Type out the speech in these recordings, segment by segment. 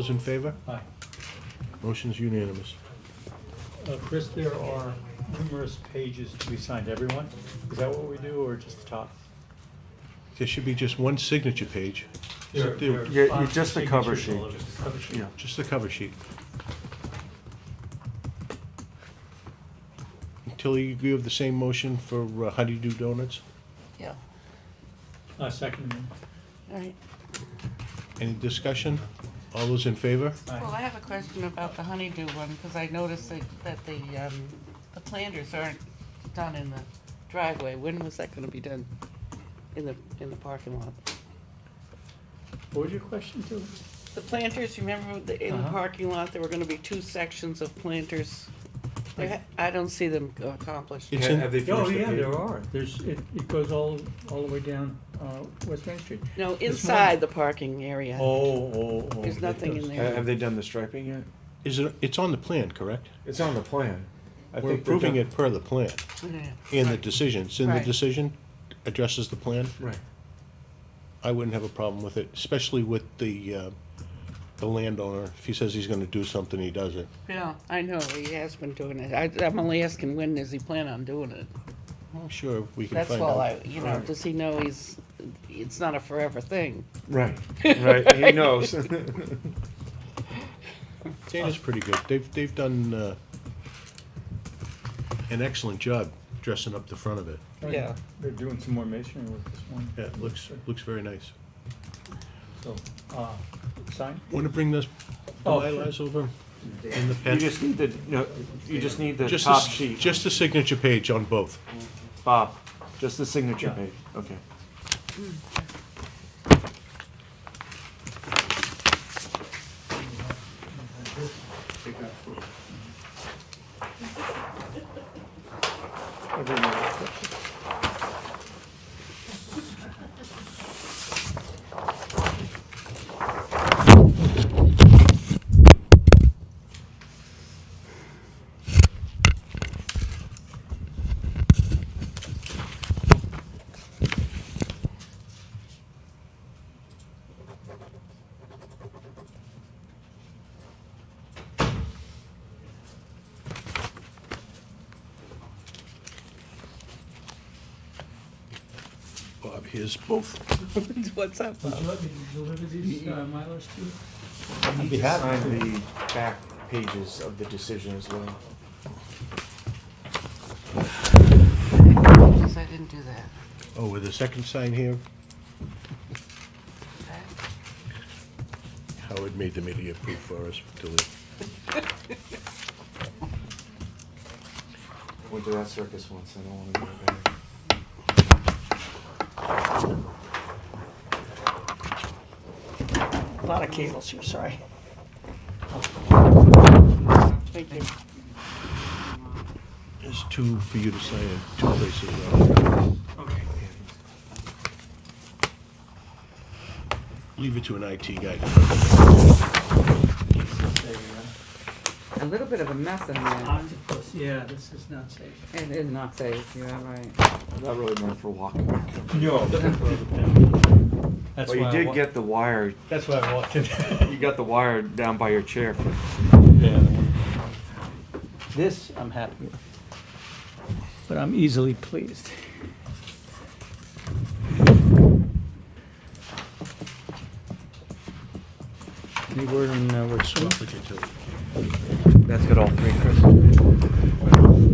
Those in favor? Hi. Motion's unanimous. Uh, Chris, there are numerous pages to be signed, everyone? Is that what we do, or just the top? There should be just one signature page, There- there are Yeah, you- five just the cover signatures all sheet. over the cover sheet. Yeah. just the cover sheet. Tilly, you agree with the same motion for uh, Honeydew Donuts? Yeah, Uh, Second, all right. Any discussion? All those in favor? Well, I have a question about the honeydew one, because I noticed that, that the, um, the planters aren't done in the driveway. When was that gonna be done? In the, in the parking lot? what was your question to? The planters, remember, the- in the Uh-huh. parking lot, there were gonna be two sections of planters. There ha- I don't see them accomplished. It's in- they Oh, yeah, there are. There's, it, it goes all, all the way down uh, West Main Street. No, morning. inside the parking area. Oh, oh, oh. There's that nothing goes- in Have there. have they done the striping yet? Is it, it's on the plan, correct? It's on the plan. I We're think they're approving done- it per the plan Yeah. and the decision. It's in the Right. decision, addresses the plan. Right. I wouldn't have a problem with it, especially with the, uh, the landowner. If he says he's gonna do something, he does it. Yeah, I know, he has been doing it. I, I'm only asking, when does he plan on doing it? I'm sure we can That's find out. all I, you know, Right. does he know he's, it's not a forever thing? Right. Right. He knows. Dana's pretty good. They've, they've done, uh, an excellent job dressing up the front of it. Yeah. They're doing some more masonry with this one. Yeah, it looks, looks very nice. So, uh, sign? Wanna bring this, the Oh, Mylars over in the You pen? just need the, no, you just need the Just top s- sheet. Just the signature page on both. Bob, just the signature Yeah. page. Okay. Bob, here's both. What's up? Would you let me deliver these uh, milers to you? You be need to happy sign the back pages of the decision as well. Because I didn't do that. Oh, with the second sign here, Okay. Howard made the media proof for us to leave. Went to that circus once. I don't want to go back. A lot of cables here, sorry. Thank you. There's two for you to sign in two places. uh, Leave it to an IT guy. A little bit of a mess in there. Yeah, this is not safe. It is not safe, you are right. I'm Not really meant for walking. No. That's But why you I did wa- get the wire, That's why I walked in. you got the wire down by your chair. This, I'm happy with. But I'm easily pleased. Any word on uh, what's That's That's got all three, Chris.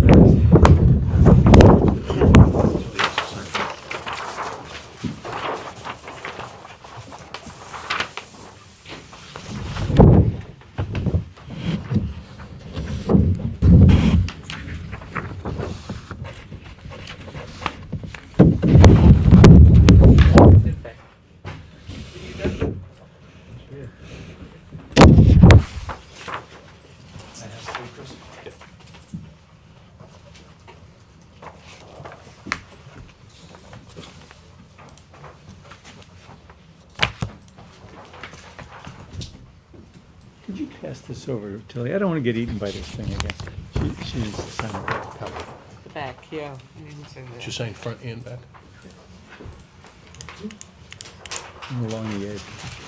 Could you pass this over to Tilly? I don't want to get eaten by this thing again. She, she needs to sign a copy. The back, yeah. I didn't say that. Did you sign front and back? I'm along the edge.